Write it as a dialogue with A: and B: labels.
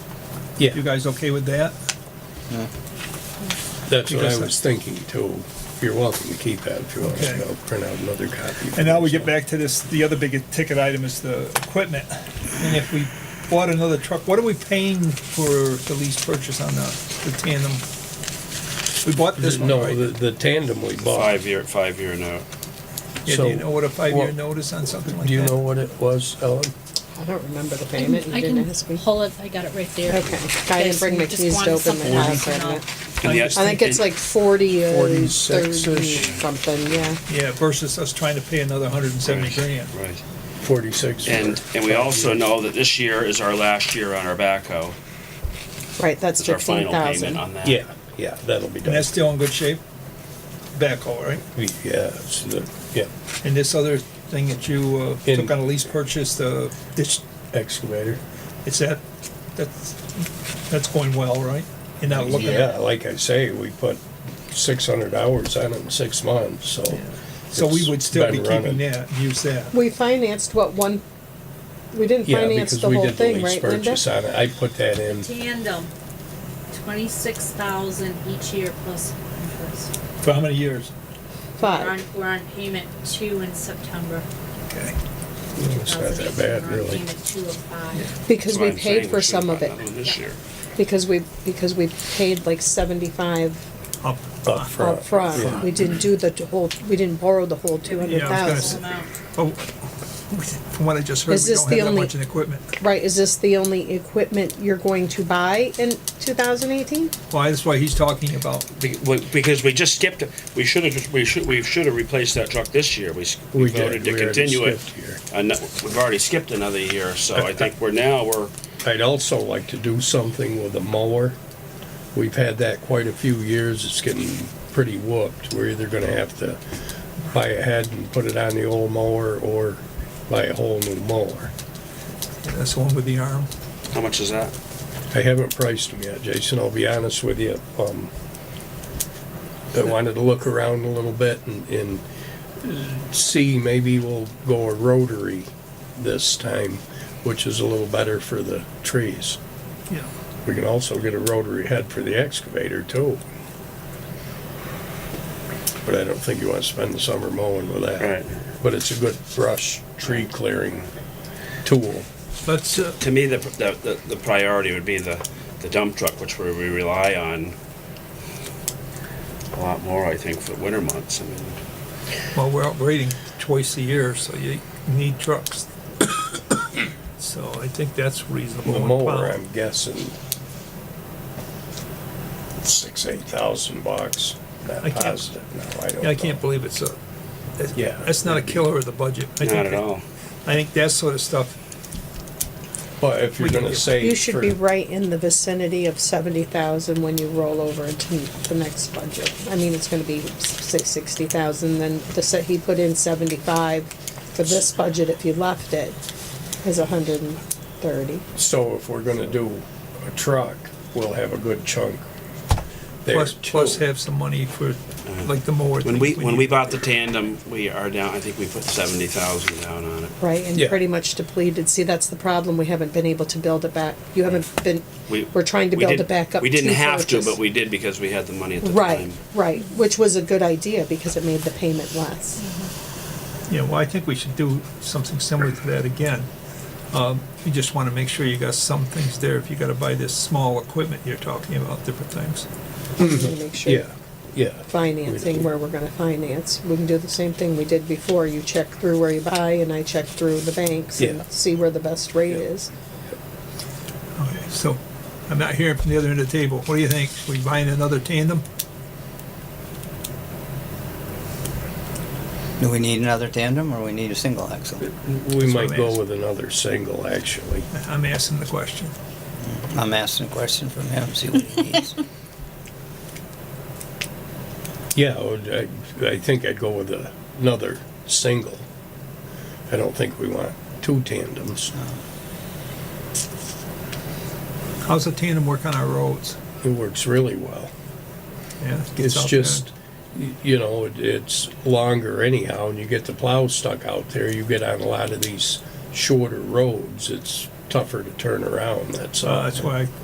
A: Yeah.
B: You guys okay with that?
C: That's what
B: Because
C: I was thinking too. You're welcome to keep that if you want.
B: Okay.
C: I'll print out another copy.
B: And now we get back to this, the other big ticket item is the equipment. And if we bought another truck, what are we paying for the lease purchase on the, the tandem? We bought this one,
C: No,
B: right?
C: the, the tandem we bought.
D: Five-year, five-year note.
B: Yeah, do you
C: so-
B: know what a five-year
C: Well,
B: notice on something like that?
C: Do you know what it was, Ellen?
E: I don't remember the
F: I
E: payment,
F: can,
E: you
F: Um, I
E: didn't
F: can
E: ask me.
F: pull it, I got it right there.
E: Okay, I didn't bring my
F: Just
E: keys to
F: wanted
E: open the
F: something
E: house,
F: else,
E: I
F: and
E: admit.
D: And yes,
E: I think it's like forty or
C: 46 -ish.
E: thirty something, yeah.
B: Yeah, versus us trying to pay another hundred and seventy grand.
D: Right.
C: Forty-six. for
D: And, and we
C: five
D: also
C: years.
D: know that this year is our last year on our backhoe.
E: Right, that's
D: It's our
E: fifteen
D: final payment
E: thousand.
D: on that.
C: Yeah, yeah, that'll be
B: And
C: done.
B: that's still in good shape? Backhoe, right?
C: Yeah, it's the, yeah,
B: And this other thing that you uh,
C: In-
B: took on a lease purchase, the ditch,
C: excavator.
B: it's that, that's, that's going well, right? You're not looking
C: Yeah,
B: at,
C: like I say, we put six hundred hours on it in six months, so.
B: so we
C: it's
B: would still be
C: been
B: keeping
C: running.
B: that, use that.
E: We financed what, one, we didn't
C: Yeah,
E: finance
C: because
E: the
C: we
E: whole
C: did the
E: thing,
C: lease
E: right, Linda?
C: purchase on it. I put that in
F: Tandem, twenty-six thousand each year plus interest.
B: For how many years?
F: We're on,
E: Five,
F: we're on payment two in September.
B: Okay.
C: It's not that bad,
F: We're on
C: really.
F: Payment two of five.
E: because
D: That's
E: we
D: why I'm saying
E: paid for
D: we should've
E: some of
D: gotten
E: it,
D: another one This
F: Yeah.
D: year.
E: because we, because we paid like seventy-five
B: Up.
C: up front.
E: upfront. We didn't do the t- whole, we didn't borrow the whole two hundred
B: say-
E: thousand.
F: Amount.
B: Oh, From what I just heard,
E: Is
B: we
E: this
B: don't
E: the
B: have that
E: only-
B: much in equipment.
E: Right, is this the only equipment you're going to buy in two thousand eighteen?
B: Why, that's why he's talking about,
D: Be- we- Because we just skipped, it. we should have, we should, we should have replaced that truck this year. We s- we
C: We did.
D: voted to
C: We already
D: continue it.
C: skipped here.
D: And that- we've already skipped another year, so I think we're now, we're,
C: I'd also like to do something with a mower. We've had that quite a few years, it's getting pretty whooped. We're either gonna have to buy a head and put it on the old mower or buy a whole new mower.
B: that's the one with the arm.
D: how much is that?
C: I haven't priced them yet, Jason, I'll be honest with you. Um, I wanted to look around a little bit and, and see, maybe we'll go a rotary this time, which is a little better for the trees.
B: Yeah.
C: We can also get a rotary head for the excavator too. But I don't think you want to spend the summer mowing with that.
D: Right.
C: But it's a good brush, tree clearing tool.
B: Let's, uh,
D: To me, the, the, the- the priority would be the, the dump truck, which we we rely on a lot more, I think, for winter months. I mean,
B: Well, we're upgrading twice a year, so you need trucks. So I think that's reasonable.
C: The
B: One
C: mower,
B: pound.
C: I'm guessing six, eight thousand bucks.
B: I
C: Not
B: can't-
C: positive, no, I don't
B: Yeah, I can't
C: know.
B: believe it's a, that's-
C: Yeah.
B: that's not a killer of the budget. I
D: Not
B: think
D: at
B: that-
D: all.
B: I think that sort of stuff,
C: But if you're
B: We can
C: gonna
B: get-
C: save.
E: You should
C: for-
E: be right in the vicinity of seventy thousand when you roll over into the next budget. I mean, it's gonna be six, sixty thousand, then the, se- he put in seventy-five for this budget, if you left it, is a hundred and thirty.
C: So if we're gonna do a truck, we'll have a good chunk there
B: plus,
C: too.
B: plus have some money for, like, the mower.
D: When
B: thing
D: we, when we
B: need.
D: bought the tandem, we are down, I think we put seventy thousand down on it.
E: Right, and
C: Yeah.
E: pretty much depleted, see, that's the problem, we haven't been able to build it back, you haven't been,
D: We-
E: we're trying to
D: we
E: build
D: did-
E: it back up.
D: We didn't
E: to
D: have to,
E: purchase.
D: but we did because we had the money at the time.
E: Right, right, which was a good idea, because it made the payment less.
B: Yeah, well, I think we should do something similar to that again. Um, You just want to make sure you got some things there, if you got to buy this small equipment you're talking about, different things.
D: Mm-hmm.
E: We wanna make sure.
C: Yeah, yeah.
E: financing, where we're gonna finance. We can do the same thing we did before, you check through where you buy, and I check through the banks
C: Yeah.
E: and see where the best rate is.
B: Okay, so, I'm not hearing from the other end of the table. What do you think? We buying another tandem?
G: Do we need another tandem or we need a single axle?
C: We
B: what
C: might
B: I'm
C: go
B: asking.
C: with another single, actually.
B: I'm asking the question.
G: I'm asking a question from him, see what he needs.
C: Yeah, I would- I, I think I'd go with a- another single. I don't think we want two tandems.
B: How's the tandem work on our roads?
C: It works really well.
B: Yeah, it gets
C: It's
B: out there.
C: just, y- you know, it- it's longer anyhow, and you get the plow stuck out there. You get on a lot of these shorter roads, it's tougher to turn around, that's
B: Uh,
C: all.
B: that's why